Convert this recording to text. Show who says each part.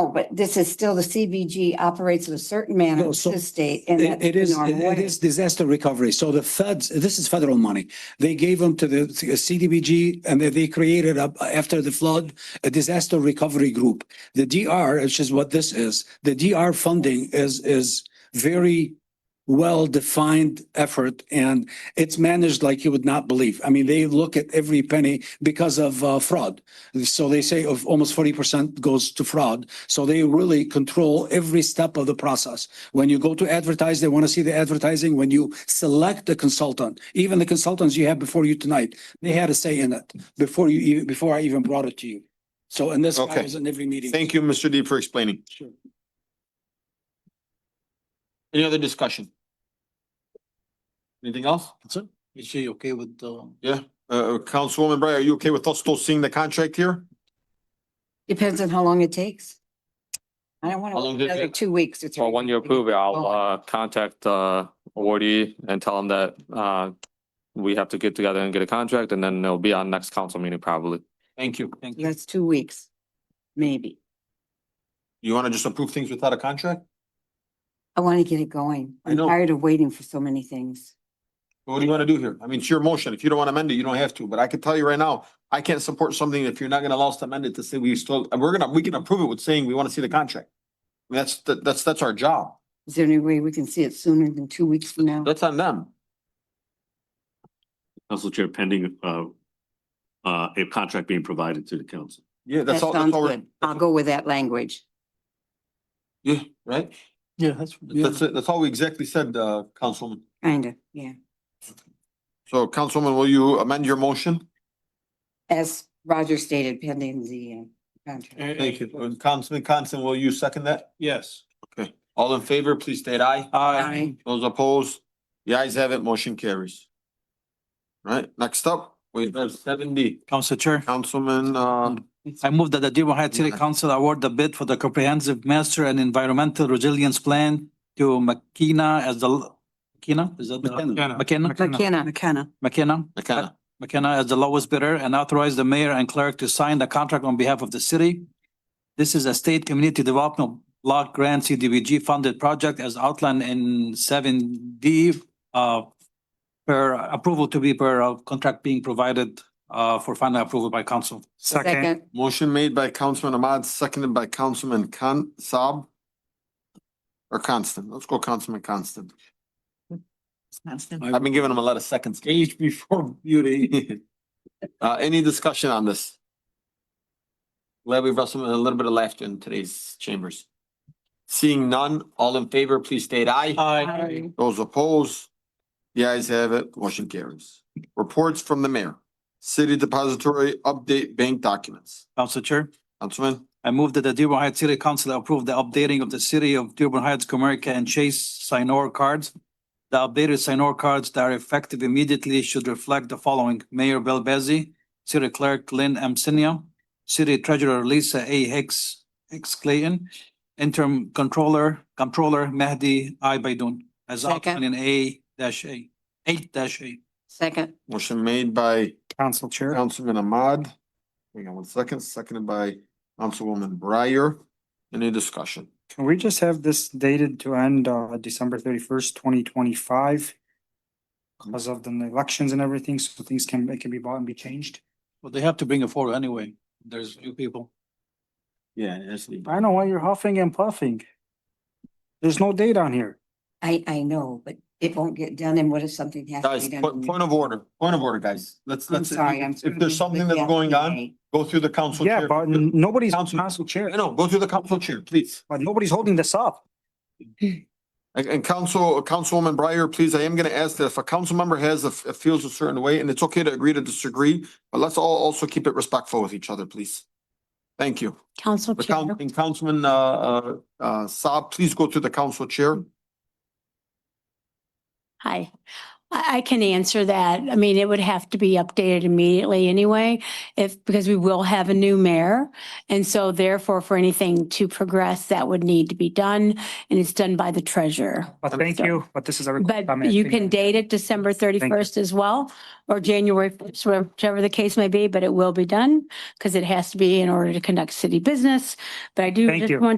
Speaker 1: Oh, but this is still the CBG operates in a certain manner
Speaker 2: No,
Speaker 1: with
Speaker 2: so
Speaker 1: the state and
Speaker 2: It
Speaker 1: that's
Speaker 2: it
Speaker 1: the
Speaker 2: is,
Speaker 1: normal
Speaker 2: it
Speaker 1: way.
Speaker 2: is disaster recovery. So the feds, this is federal money. They gave them to the CDBG and they- they created up after the flood, a disaster recovery group. The DR, which is what this is, the DR funding is, is very well-defined effort and it's managed like you would not believe. I mean, they look at every penny because of uh, fraud. So they say of almost forty percent goes to fraud. So they really control every step of the process. When you go to advertise, they want to see the advertising. When you select the consultant, even the consultants you have before you tonight, they had a say in it before you, even before I even brought it to you. So, and this guy
Speaker 3: Okay.
Speaker 2: was in every meeting.
Speaker 3: Thank you, Mr. Deeb, for explaining.
Speaker 2: Sure.
Speaker 3: Any other discussion? Anything else?
Speaker 4: That's it. Is she okay with, um,
Speaker 3: Uh, uh, Councilwoman Bray, are you okay with us still seeing the contract here?
Speaker 1: Depends on how long it takes. I don't want
Speaker 3: How
Speaker 1: to
Speaker 3: long
Speaker 1: wait
Speaker 3: does it
Speaker 1: another
Speaker 3: take?
Speaker 1: two weeks. or
Speaker 5: Well,
Speaker 1: three
Speaker 5: when you
Speaker 1: weeks.
Speaker 5: approve it, I'll
Speaker 1: Oh.
Speaker 5: uh contact uh awardee and tell them that uh we have to get together and get a contract and then it'll be on next council meeting probably.
Speaker 3: Thank you. Thank
Speaker 1: That's two weeks, maybe.
Speaker 3: You want to just approve things without a contract?
Speaker 1: I want to get it going.
Speaker 3: I
Speaker 1: I'm
Speaker 3: know.
Speaker 1: tired of waiting for so many things.
Speaker 3: What do you want to do here? I mean, it's your motion. If you don't want to amend it, you don't have to, but I can tell you right now, I can't support something if you're not going to allow us to amend it to say we still, and we're gonna, we can approve it with saying we want to see the contract. I mean, That's, that- that's, that's our job.
Speaker 1: Is there any way we can see it sooner than two weeks from now?
Speaker 3: That's on them.
Speaker 6: Council Chair, pending, uh, uh, a contract being provided to the council.
Speaker 3: Yeah,
Speaker 1: That
Speaker 3: that's all.
Speaker 1: sounds
Speaker 3: all we're-
Speaker 1: good. I'll go with that language.
Speaker 3: Yeah, right?
Speaker 4: yeah, that's, yeah,
Speaker 3: That's, it. that's all we exactly said, uh, Councilman.
Speaker 1: Kinda, yeah.
Speaker 3: So Councilman, will you amend your motion?
Speaker 1: As Roger stated pending the uh, contract.
Speaker 3: Thank you. And Councilman Constant, will you second that?
Speaker 4: yes.
Speaker 3: Okay. All in favor, please state aye.
Speaker 1: Aye.
Speaker 3: Those opposed, the ayes have it, motion carries. Right, next up, we have seven D,
Speaker 4: Council Chair,
Speaker 3: Councilman, uh,
Speaker 4: I move that the Dearborn Heights City Council award the bid for the comprehensive master and environmental resilience plan to McKenna as the, McKenna, is that? the-
Speaker 2: McKenna.
Speaker 4: McKenna?
Speaker 1: McKenna.
Speaker 7: McKenna.
Speaker 4: McKenna?
Speaker 3: McKenna.
Speaker 4: McKenna as the lowest bidder and authorize the mayor and clerk to sign the contract on behalf of the city. This is a state community development block grant CDBG funded project as outlined in seven D uh per approval to be per uh, contract being provided uh for final approval by council.
Speaker 1: Second,
Speaker 3: Motion made by Councilman Ahmad, seconded by Councilman Khan Saab. Or Constant, let's go Councilman Constant. I've been giving him a lot of seconds. Age before beauty. Uh, any discussion on this? Glad we brought some, a little bit of laughter in today's chambers. Seeing none, all in favor, please state aye.
Speaker 1: Aye.
Speaker 3: Those opposed, the ayes have it, motion carries. Reports from the mayor, city depository update bank documents.
Speaker 4: Council Chair.
Speaker 3: Councilman?
Speaker 4: I move that the Dearborn Heights City Council approve the updating of the city of Dearborn Heights, Comerica, and Chase Sinor cards. The updated Sinor cards that are effective immediately should reflect the following: Mayor Bill Bezzi, City Clerk Lynn Amsinia, City Treasurer Lisa A. Hicks, Hicks Clayton, Interim Controller, Controller Mahdi I. Baidoon, as outlined in A dash A, eight dash A.
Speaker 1: second,
Speaker 3: Motion made by
Speaker 4: Council Chair.
Speaker 3: Councilman Ahmad. Hang on one second, seconded by Councilwoman Breyer. Any discussion?
Speaker 8: Can we just have this dated to end uh December thirty first, twenty twenty five? Because of the elections and everything, so things can, it can be bought and be changed.
Speaker 4: Well, they have to bring it forward anyway. There's few people.
Speaker 3: Yeah, actually.
Speaker 8: I know why you're huffing and puffing. There's no date on here.
Speaker 1: I, I know, but it won't get done and what if something has to
Speaker 3: Guys,
Speaker 1: be done?
Speaker 3: po- point of order, point of order, guys. Let's,
Speaker 1: I'm
Speaker 3: let's,
Speaker 1: sorry, I'm.
Speaker 3: if there's something that's going on, go through the council chair.
Speaker 8: Yeah, but n- nobody's
Speaker 3: Council-
Speaker 8: council chair,
Speaker 3: I know, go through the council chair, please.
Speaker 8: but nobody's holding this up.
Speaker 3: And, and council, Councilwoman Breyer, please, I am gonna ask that if a council member has, a f- a feels a certain way, and it's okay to agree to disagree, but let's all also keep it respectful with each other, please. Thank you.
Speaker 7: Council
Speaker 3: But
Speaker 7: Chair,
Speaker 3: Coun- and Councilman, uh, uh, uh, Saab, please go to the council chair.
Speaker 7: hi. I, I can answer that. I mean, it would have to be updated immediately anyway, if, because we will have a new mayor. And so therefore, for anything to progress, that would need to be done, and it's done by the treasurer.
Speaker 8: But thank you, but this is a. request by
Speaker 7: But
Speaker 8: Mayor
Speaker 7: you
Speaker 8: Singer.
Speaker 7: can date it December thirty-first as well, or January, 1st, whichever the case may be, but it will be done because it has to be in order to conduct city business. But I do
Speaker 8: Thank
Speaker 7: just
Speaker 8: you.
Speaker 7: want